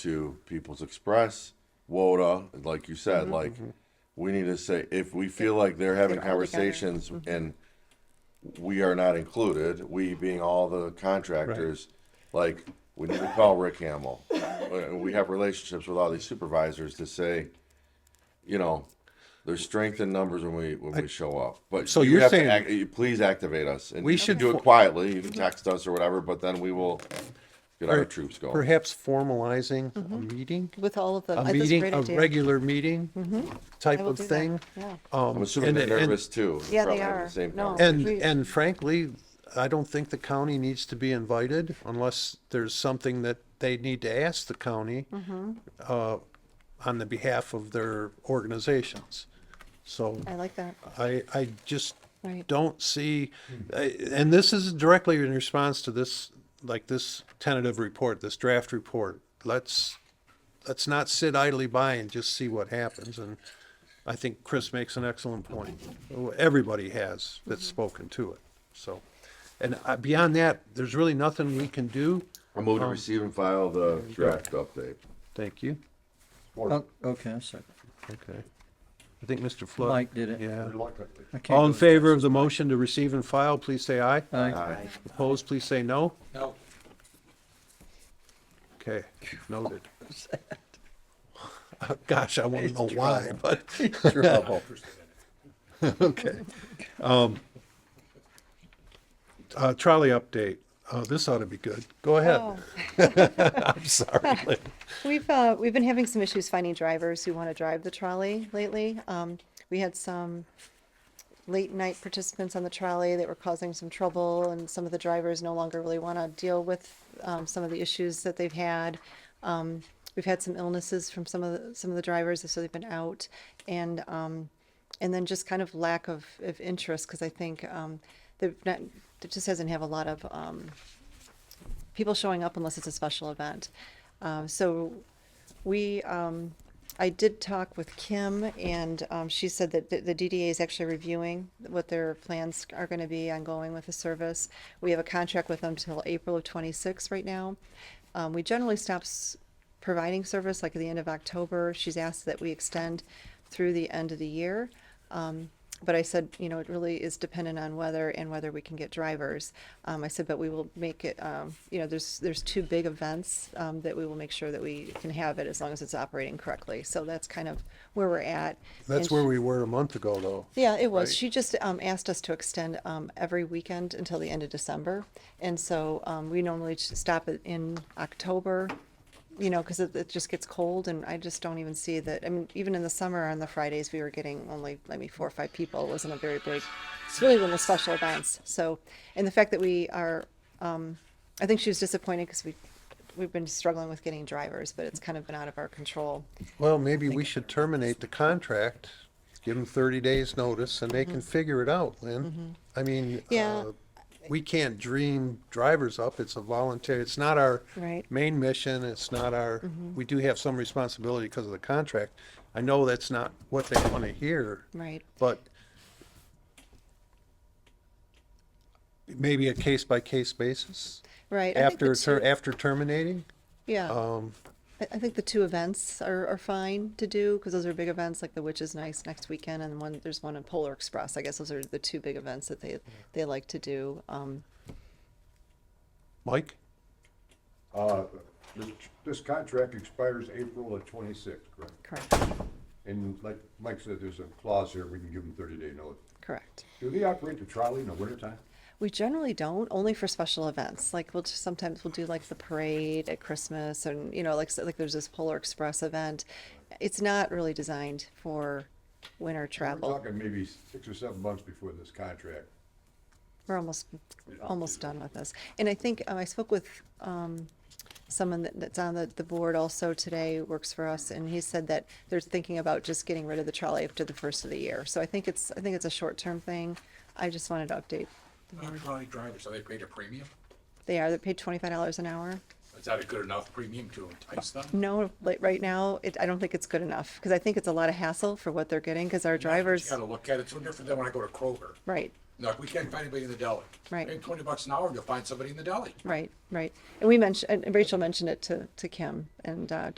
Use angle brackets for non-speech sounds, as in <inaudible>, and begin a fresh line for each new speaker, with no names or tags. to People's Express, WODA, like you said,
Mm-hmm,
like we need to say if we feel like they're having
all together.
conversations
Mm-hmm.
and we are not included, we being all the contractors, like we need to call Rick Hamill. Uh, we have relationships with all these supervisors to say, you know, there's strength in numbers when we when we show up. But
So
you
you're
have to
saying-
act- you- please activate us and
We
you
should
can do
fo-
it quietly. You can text us or whatever, but then we will get our
Per-
troops going.
Perhaps formalizing a
Mm-hmm.
meeting,
with all of them.
a
I think it's Oh, great
meeting, a
idea. Mm-hmm.
regular meeting type
I will
of
do that.
thing. Um,
Yeah.
I'm assuming
and-
they're
and-
nervous too.
Yeah, they
probably having the
are.
same
No.
conversation.
And,
Agreed.
and frankly, I don't think the county needs to be invited unless there's something that they need to ask the county
Mm-hmm.
uh, on the behalf of their organizations. So
I like that.
I, I just
Right.
don't see, I- and this is directly in response to this, like this tentative report, this draft report. Let's, let's not sit idly by and just see what happens. And I think Chris makes an excellent point. Everybody has that's spoken to it, so. And uh, beyond that, there's really nothing we can do.
I move to receive and file the draft update.
Thank you.
Oh, okay, I second.
Okay. I think Mr. Flood.
Mike did it.
Yeah.
I can't
All in
go-
favor of the motion to receive and file, please say aye.
Aye.
Opposed, please say no. No. Okay, noted. <laughs> Gosh, I want to know why, but,
Trouble.
<laughs> okay. Um, uh, Trolley update. Uh, This ought to be good. Go ahead.
Oh,
<laughs> I'm sorry. Lynn.
We've, uh, we've been having some issues finding drivers who want to drive the trolley lately. Um, we had some late night participants on the trolley that were causing some trouble and some of the drivers no longer really want to deal with, um, some of the issues that they've had. Um, we've had some illnesses from some of the, some of the drivers, so they've been out and, um, and then just kind of lack of, of interest, cause I think, um, they've not, there just doesn't have a lot of, um, people showing up unless it's a special event. Um, so we, um, I did talk with Kim and, um, she said that the, the DDA is actually reviewing what their plans are gonna be ongoing with the service. We have a contract with them till April of twenty-six right now. Um, we generally stop s- providing service like at the end of October. She's asked that we extend through the end of the year. Um, but I said, you know, it really is dependent on weather and whether we can get drivers. Um, I said, but we will make it, um, you know, there's, there's two big events, um, that we will make sure that we can have it as long as it's operating correctly. So that's kind of where we're at.
That's
And
where we were a month ago, though.
yeah, it was. She just um, asked us to extend um, every weekend until the end of December. And so um, we normally just stop it in October, you know, because it, it just gets cold and I just don't even see that. I mean, even in the summer on the Fridays, we were getting only, I mean, four or five people. It wasn't a very big, it's really when the special events. So, and the fact that we are, um, I think she was disappointed because we, we've been struggling with getting drivers, but it's kind of been out of our control.
Well, maybe we should terminate the contract, give them thirty days' notice, and they can figure it out, Lynn. I mean,
Mm-hmm. Yeah.
uh, we can't dream drivers up. It's a volunteer, it's not our
Right. Mm-hmm.
main mission, it's not our, we do have some responsibility because of the contract. I know that's not what they want to hear,
Right.
but maybe a case-by-case basis
Right. I think the
after, ter-
two-
after terminating.
Yeah.
Um,
I, I think the two events are, are fine to do because those are big events like the Witch is Nice next weekend and one there's one in Polar Express. I guess those are the two big events that they they like to do. Um,
Mike?
Uh, this- This contract expires April of twenty-six, correct?
correct,
And like Mike said, there's a clause here, we can give them thirty-day notice.
correct.
Do they operate the trolley in the wintertime?
We generally don't, only for special events. Like we'll just, sometimes we'll do like the parade at Christmas and you know like so, like there's this Polar Express event. It's not really designed for winter
We're
travel.
talking maybe six or seven months before this contract.
We're almost, almost done with this. And I think, um, I spoke with, um, someone that, that's on the, the board also today, works for us, and he said that they're thinking about just getting rid of the trolley after the first of the year. So I think it's, I think it's a short-term thing. I just wanted to update.
Not trolley drivers, are they paid a premium?
They are, they're paid twenty-five dollars an hour.
Is that a good enough premium to entice them?
No, like, right now, it, I don't think it's good enough, because I think it's a lot of hassle for what they're getting, because our
You
drivers,
gotta look at it, it's no different than when I go to Kroger.
right,
Now, if we can't find anybody in the deli.
Right.
Pay twenty bucks an hour, you'll find somebody in the deli.
Right, right. And we mentioned, and Rachel mentioned it to, to Kim and, uh,